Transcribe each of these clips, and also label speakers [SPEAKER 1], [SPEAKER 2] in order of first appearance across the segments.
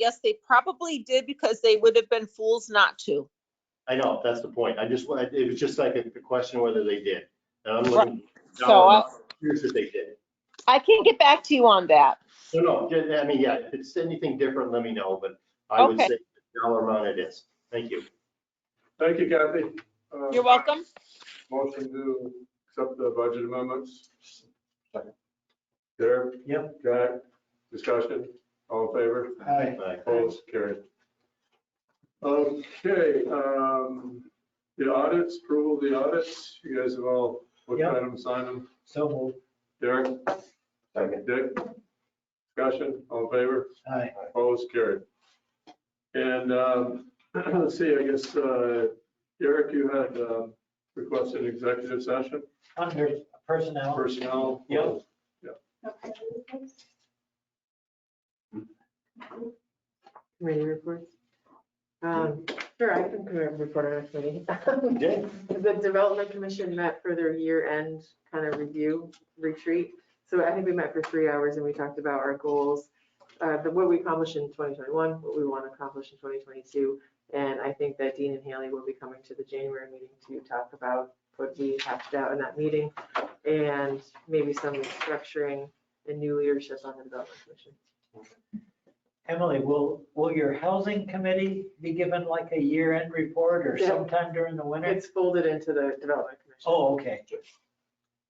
[SPEAKER 1] Yes, they probably did because they would have been fools not to.
[SPEAKER 2] I know, that's the point. I just, wa- it was just like a the question whether they did. And I'm
[SPEAKER 1] Right.
[SPEAKER 2] looking,
[SPEAKER 1] So
[SPEAKER 2] no,
[SPEAKER 1] I'll-
[SPEAKER 2] here's if they did.
[SPEAKER 1] I can get back to you on that.
[SPEAKER 2] No, no, ju- I mean, yeah, if it's anything different, let me know, but I would
[SPEAKER 1] Okay.
[SPEAKER 2] say the dollar amount it is. Thank you.
[SPEAKER 3] Thank you, Kathy. Uh,
[SPEAKER 1] You're welcome.
[SPEAKER 3] Motion to accept the budget amendments. Derek?
[SPEAKER 4] Yep.
[SPEAKER 3] Jack? Discussion? All in favor?
[SPEAKER 4] Aye.
[SPEAKER 2] Bye.
[SPEAKER 3] Opposed? Carried. Okay, um, the audits, approval of the audits. You guys have all looked at them, signed them.
[SPEAKER 4] So moved.
[SPEAKER 3] Derek?
[SPEAKER 2] Second.
[SPEAKER 3] Dick? Discussion? All in favor?
[SPEAKER 4] Aye.
[SPEAKER 3] Opposed, carried. And um, let's see, I guess, uh, Eric, you had um, requested executive session,
[SPEAKER 4] Under personnel.
[SPEAKER 3] personnel.
[SPEAKER 4] Yep.
[SPEAKER 5] Committee reports. Um, Sure, I can come and report on a committee.
[SPEAKER 2] Yeah.
[SPEAKER 5] The Development Commission met for their year-end kind of review retreat. So I think we met for three hours and we talked about our goals, uh, the- what we accomplished in 2021, what we want to accomplish in 2022. And I think that Dean and Haley will be coming to the January meeting to talk about what we hashed out in that meeting and maybe some restructuring and new leadership on the Development Commission.
[SPEAKER 4] Emily, will, will your housing committee be given like a year-end report or
[SPEAKER 5] Yeah.
[SPEAKER 4] sometime during the winter?
[SPEAKER 5] It's folded into the Development Commission.
[SPEAKER 4] Oh, okay.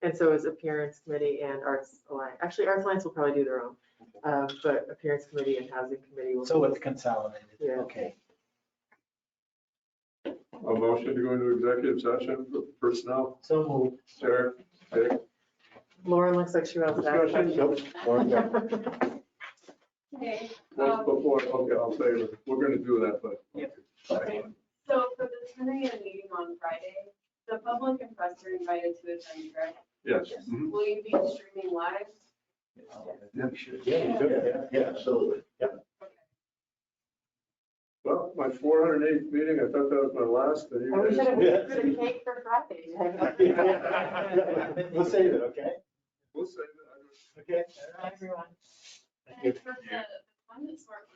[SPEAKER 5] And so is Appearance Committee and Arts Alliance. Actually, Arts Alliance will probably do their own. um, But Appearance Committee and Housing Committee will.
[SPEAKER 4] So it's consolidated.
[SPEAKER 5] Yeah.
[SPEAKER 4] Okay.
[SPEAKER 3] A motion to go into executive session for personnel,
[SPEAKER 4] So moved.
[SPEAKER 3] Eric, Dick,
[SPEAKER 5] Lauren looks like she wants
[SPEAKER 3] discussion.
[SPEAKER 5] that.
[SPEAKER 6] Okay,
[SPEAKER 5] Uh,
[SPEAKER 3] Once before, okay, I'll say, it. we're going to do that, but.
[SPEAKER 6] okay. so for the ten AM meeting on Friday, the public and press are invited to attend, correct?
[SPEAKER 3] Yes.
[SPEAKER 6] Will you be streaming live?
[SPEAKER 2] Yeah, you could, yeah, yeah, absolutely. Yeah.
[SPEAKER 3] Well, my 408th meeting, I thought that was my last. and you
[SPEAKER 5] Oh,
[SPEAKER 3] guys-
[SPEAKER 5] we should have
[SPEAKER 2] Yeah.
[SPEAKER 5] put a cake for Friday.
[SPEAKER 2] We'll save it, okay?
[SPEAKER 3] We'll say that.
[SPEAKER 2] Okay.
[SPEAKER 5] Everyone.
[SPEAKER 6] And for the, the one that's more